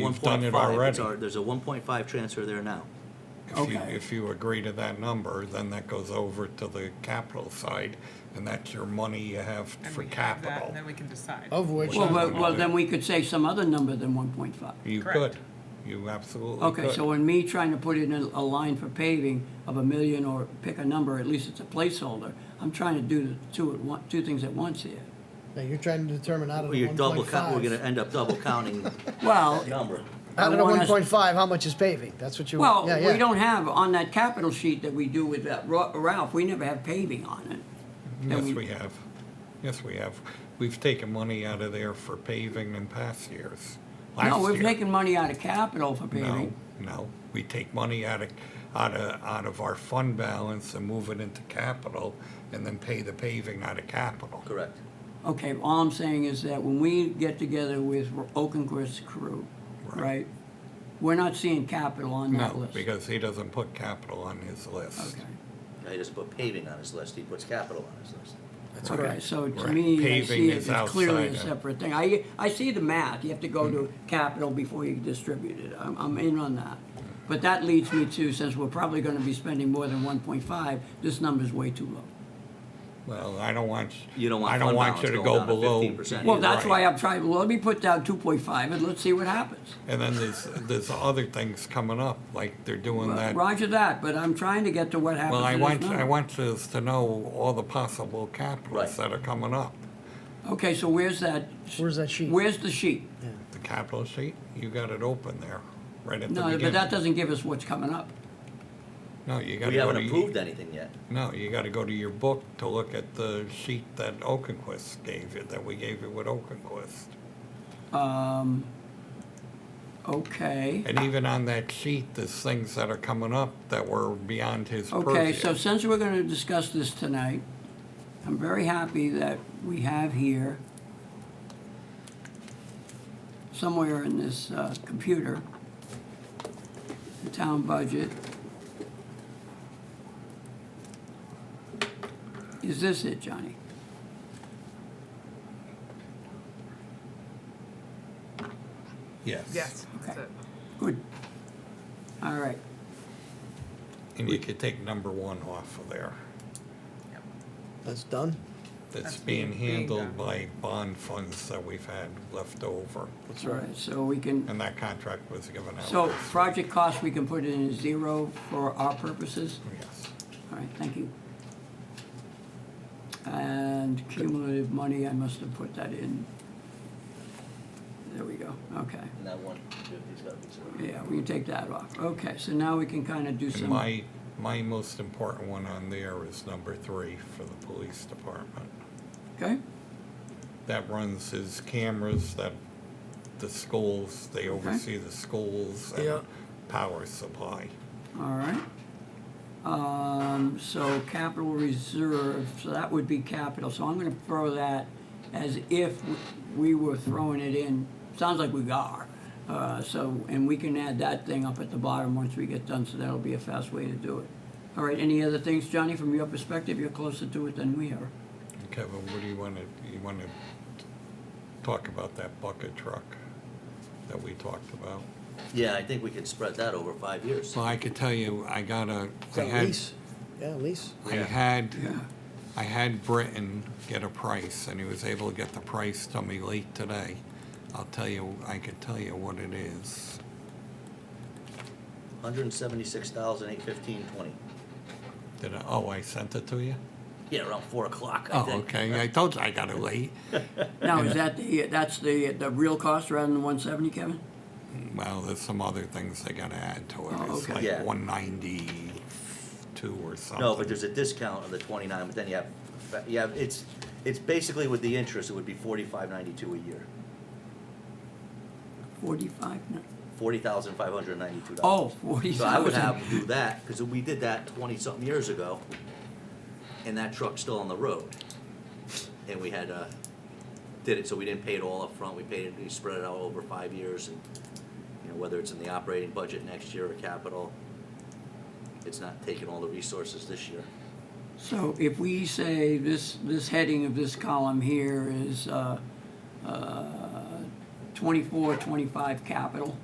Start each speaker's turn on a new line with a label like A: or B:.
A: You've done it
B: 1.5, it's
A: already.
B: our- There's a one point five transfer there now.
A: If you,
C: Okay.
A: if you agree to that number, then that goes over to the capital side, and that's your money you have
D: And
A: for
D: we have that,
A: capital.
D: and Then we can decide.
E: Of which,
C: Well, well,
A: we
C: well,
A: do.
C: then we could say some other number than one point five.
A: You
D: Correct.
A: could, you absolutely could.
C: Okay, so in me trying to put in a, a line for paving of a million or pick a number, at least it's a placeholder, I'm trying to do the two at one, two things at once here.
E: yeah, you're trying to determine out of
B: Well,
E: the
B: You're
E: one
B: double
E: point
B: count, we're gonna
E: five.
B: end up double counting the
C: Well,
B: number.
E: Out
C: I
E: of the
C: want
E: one
C: us-
E: point five, how much is paving? That's what you,
C: well,
E: yeah, yeah.
C: we don't have, on that capital sheet that we do with that Ra- Ralph, we never have paving on it.
A: Mm-hmm. Yes,
C: And
A: we have. Yes, we have. We've taken money out of there for paving in past years.
C: No,
A: Last
C: we're
A: year.
C: taking money out of capital for
A: No,
C: paving.
A: no. We take money out of, out of, out of our fund balance and move it into capital, and then pay the paving out of capital.
B: Correct.
C: Okay, all I'm saying is that when we get together with Oakenquist's crew,
A: Right.
C: right? We're not seeing capital on that
A: No,
C: list.
A: because he doesn't put capital on his list.
C: Okay.
B: I just put paving on his list, he puts capital on his list.
E: That's
C: Okay,
E: correct.
C: so to
A: Right.
C: me, I
A: Paving
C: see it
A: is
C: as clearly a
A: outside of- Mm.
C: separate thing. I, I see the math, you have to go to capital before you distribute it, I'm, I'm in on that. But that leads me to, since we're probably gonna be spending more than one point five, this number's way too low.
A: Well, I don't want,
B: You don't want
A: I don't
B: fund
A: want you to go
B: balance going down to
A: below.
B: 15%.
C: Well,
B: You're
C: that's why
A: right.
C: I'm trying, well, let me put down two point five and let's see what happens.
A: And then there's, there's other things coming up, like they're doing that.
C: Roger that, but I'm trying to get to what happens
A: Well, I
C: in
A: want,
C: this
A: I
C: number.
A: want us to know all the possible
B: Right.
A: capitals that are coming up.
C: Okay, so where's that?
E: Where's that sheet?
C: Where's the sheet?
A: The capital sheet, you got it open there, right at the
C: No,
A: beginning.
C: but that doesn't give us what's coming up.
A: No, you gotta
B: We
A: go
B: haven't
A: to.
B: approved anything yet.
A: No, you gotta go to your book to look at the sheet that Oakenquist gave you, that we gave you with Oakenquist.
C: Okay.
A: And even on that sheet, there's things that are coming up that were beyond his purview.
C: Okay, so since we're gonna discuss this tonight, I'm very happy that we have here somewhere in this uh, computer, the town budget. Is this it, Johnny?
A: Yes.
D: Yes, that's
C: Okay.
D: it.
C: Good. All right.
A: And you could take number one off of there.
D: Yep.
E: That's done?
A: That's
D: That's
A: being
D: being
A: handled
D: done.
A: by bond funds that we've had left over.
E: That's
C: All
E: right.
C: right, so we can,
A: And uh, that contract was given out.
C: so
A: this-
C: project cost, we can put in as zero for our purposes?
A: Yes.
C: All right, thank you. And cumulative money, I must have put that in. There we go, okay.
B: And that one fifty's gotta be zero.
C: Yeah, we can take that off. Okay, so now we can kind of do
A: And
C: some.
A: my, my most important one on there is number three for the police department.
C: Okay,
A: That runs his cameras, that, the schools, they oversee the schools
E: Yeah.
A: and power supply.
C: all right. Um, so capital reserve, so that would be capital, so I'm gonna throw that as if we were throwing it in. Sounds like we are, uh, so, and we can add that thing up at the bottom once we get done, so that'll be a fast way to do it. All right, any other things, Johnny, from your perspective, you're closer to it than we are.
A: Kevin, what do you wanna, you wanna talk about that bucket truck that we talked about?
B: Yeah, I think we could spread that over five years.
A: Well, I could tell you, I got a,
E: Is
A: I
E: that
A: had,
E: lease? Yeah, lease.
A: I had, I had Britton get a price, and he was able to get the price to me late today. I'll tell you, I could tell you what it is.
B: Hundred and seventy-six thousand, eight fifteen, twenty.
A: Did I, oh, I sent it to you?
B: Yeah, around four o'clock, I
A: Oh,
B: think.
A: okay, I told you I got it late.
C: Now, is that the, that's the, the real cost rather than one seventy, Kevin?
A: Well, there's some other things they gotta add to it.
C: Oh,
A: It's
C: okay.
A: like
B: Yeah.
A: one ninety-two or something.
B: No, but there's a discount on the twenty-nine, but then you have, you have, it's, it's basically with the interest, it would be forty-five ninety-two a year.
C: Forty-five, no,
B: Forty thousand five hundred ninety-two
C: oh,
B: dollars.
C: forty
B: So I would
C: thousand.
B: have them do that, because we did that twenty-something years ago, and that truck's still on the road. And we had, uh, did it, so we didn't pay it all up front. we paid it, we spread it out over five years, and, you know, whether it's in the operating budget next year or capital, it's not taking all the resources this year.
C: So if we say this, this heading of this column here is uh, uh, 24, 25 capital,